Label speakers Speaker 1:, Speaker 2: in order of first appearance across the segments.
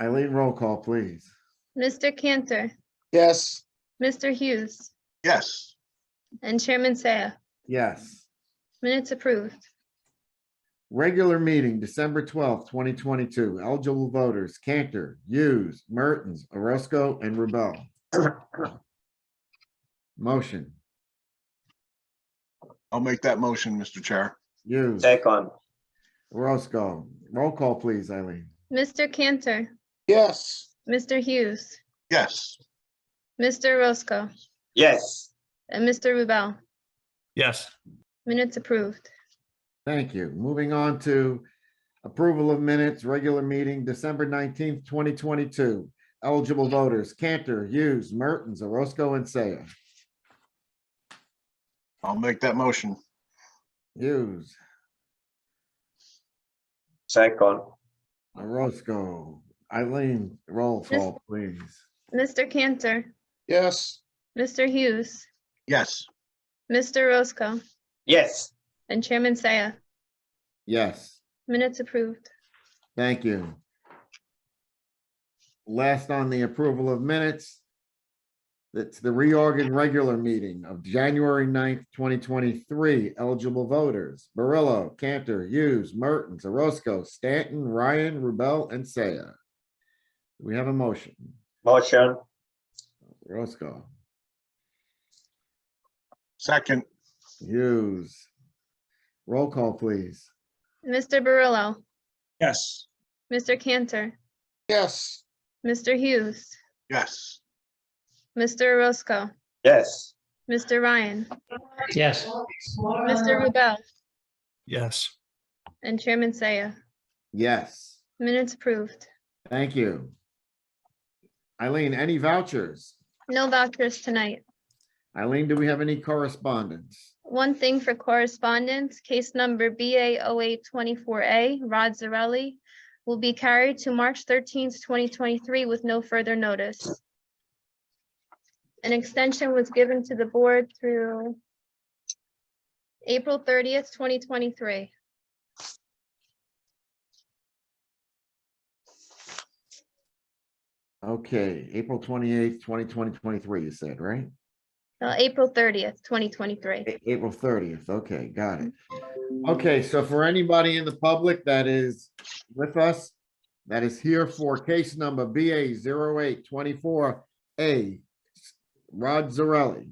Speaker 1: Eileen, roll call, please.
Speaker 2: Mr. Cantor,
Speaker 3: Yes.
Speaker 2: Mr. Hughes,
Speaker 3: Yes.
Speaker 2: and Chairman Saya.
Speaker 1: Yes.
Speaker 2: Minutes approved.
Speaker 1: Regular meeting, December twelfth, twenty twenty-two. Eligible voters, Cantor, Hughes, Mertens, Orozco, and Rebel. Motion,
Speaker 3: I'll make that motion, Mr. Chair.
Speaker 1: Hughes,
Speaker 4: Second,
Speaker 1: Orozco. Roll call, please, Eileen.
Speaker 2: Mr. Cantor,
Speaker 3: Yes.
Speaker 2: Mr. Hughes,
Speaker 3: Yes.
Speaker 2: Mr. Roscoe,
Speaker 4: yes,
Speaker 2: and Mr. Rubel.
Speaker 5: yes,
Speaker 2: Minutes approved.
Speaker 1: Thank you. Moving on to approval of minutes, regular meeting, December nineteenth, twenty twenty-two. Eligible voters, Cantor, Hughes, Mertens, Orozco, and Saya.
Speaker 3: I'll make that motion.
Speaker 1: Hughes,
Speaker 4: second,
Speaker 1: Orozco, Eileen, roll call, please.
Speaker 2: Mr. Cantor,
Speaker 3: Yes.
Speaker 2: Mr. Hughes,
Speaker 3: Yes.
Speaker 2: Mr. Roscoe,
Speaker 4: yes,
Speaker 2: and Chairman Saya.
Speaker 1: Yes,
Speaker 2: Minutes approved.
Speaker 1: thank you. Last on the approval of minutes. That's the reorg and regular meeting of January 9th, twenty twenty-three. Eligible voters, Barillo, Cantor, Hughes, Mertens, Orozco, Stanton, Ryan, Rubel, and Saya. We have a motion.
Speaker 4: motion,
Speaker 1: Orozco,
Speaker 3: Second.
Speaker 1: Hughes. Roll call, please.
Speaker 2: Mr. Barillo,
Speaker 3: Yes.
Speaker 2: Mr. Cantor,
Speaker 3: Yes.
Speaker 2: Mr. Hughes,
Speaker 3: Yes.
Speaker 2: Mr. Roscoe,
Speaker 4: yes,
Speaker 2: Mr. Ryan,
Speaker 6: yes,
Speaker 2: Mr. Rubel,
Speaker 5: yes,
Speaker 2: and Chairman Saya.
Speaker 1: Yes.
Speaker 2: Minutes approved.
Speaker 1: Thank you. Eileen, any vouchers?
Speaker 2: No vouchers tonight.
Speaker 1: Eileen, do we have any correspondence?
Speaker 2: One thing for correspondence, case number BA 0824A, Rod Zarelli, will be carried to March 13th, 2023 with no further notice. An extension was given to the board through April 30th, 2023.
Speaker 1: Okay, April twenty-eighth, twenty twenty, twenty-three, you said, right?
Speaker 2: No, April 30th, 2023.
Speaker 1: A- April thirtieth, okay, got it. Okay, so for anybody in the public that is with us, that is here for case number BA 824 A, Rod Zarelli.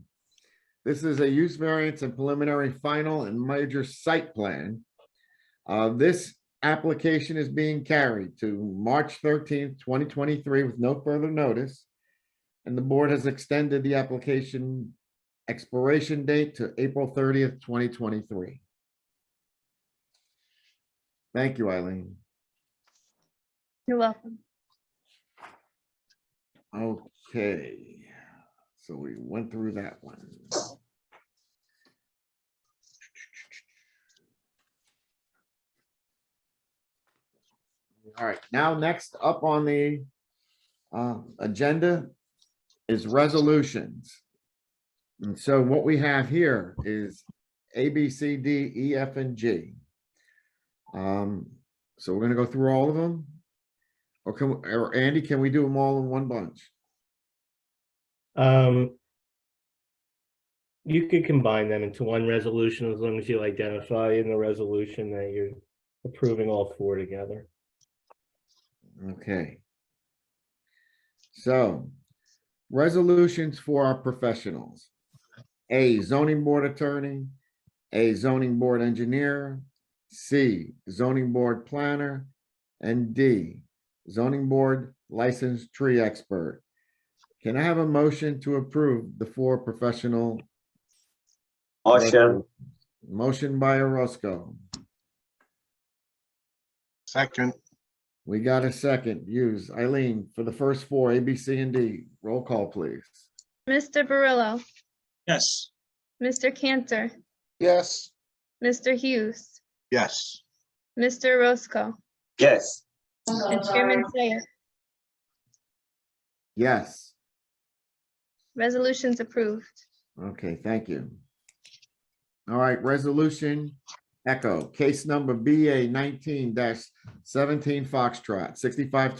Speaker 1: This is a use variance and preliminary final and major site plan. Uh, this application is being carried to March thirteenth, twenty twenty-three with no further notice. And the board has extended the application expiration date to April thirtieth, twenty twenty-three. Thank you, Eileen.
Speaker 2: You're welcome.
Speaker 1: Okay, so we went through that one. All right, now next up on the uh, agenda is resolutions. And so what we have here is A, B, C, D, E, F, and G. Um, So we're gonna go through all of them. Or can, we- or Andy, can we do them all in one bunch?
Speaker 6: um. You could combine them into one resolution as long as you identify in the resolution that you're approving all four together.
Speaker 1: Okay. So, resolutions for our professionals. A zoning board attorney, a zoning board engineer, C zoning board planner, and D zoning board licensed tree expert. Can I have a motion to approve the four professional?
Speaker 4: motion,
Speaker 1: resolutions? Motion by Orozco.
Speaker 3: Second.
Speaker 1: We got a second. Use Eileen for the first four, A, B, C, and D. Roll call, please.
Speaker 2: Mr. Barillo,
Speaker 3: Yes.
Speaker 2: Mr. Cantor,
Speaker 3: Yes.
Speaker 2: Mr. Hughes,
Speaker 3: Yes.
Speaker 2: Mr. Roscoe,
Speaker 4: yes,
Speaker 2: and Chairman Saya.
Speaker 1: Yes.
Speaker 2: Resolutions approved.
Speaker 1: Okay, thank you. All right, resolution Echo, case number BA nineteen seventeen Foxtrot, sixty-five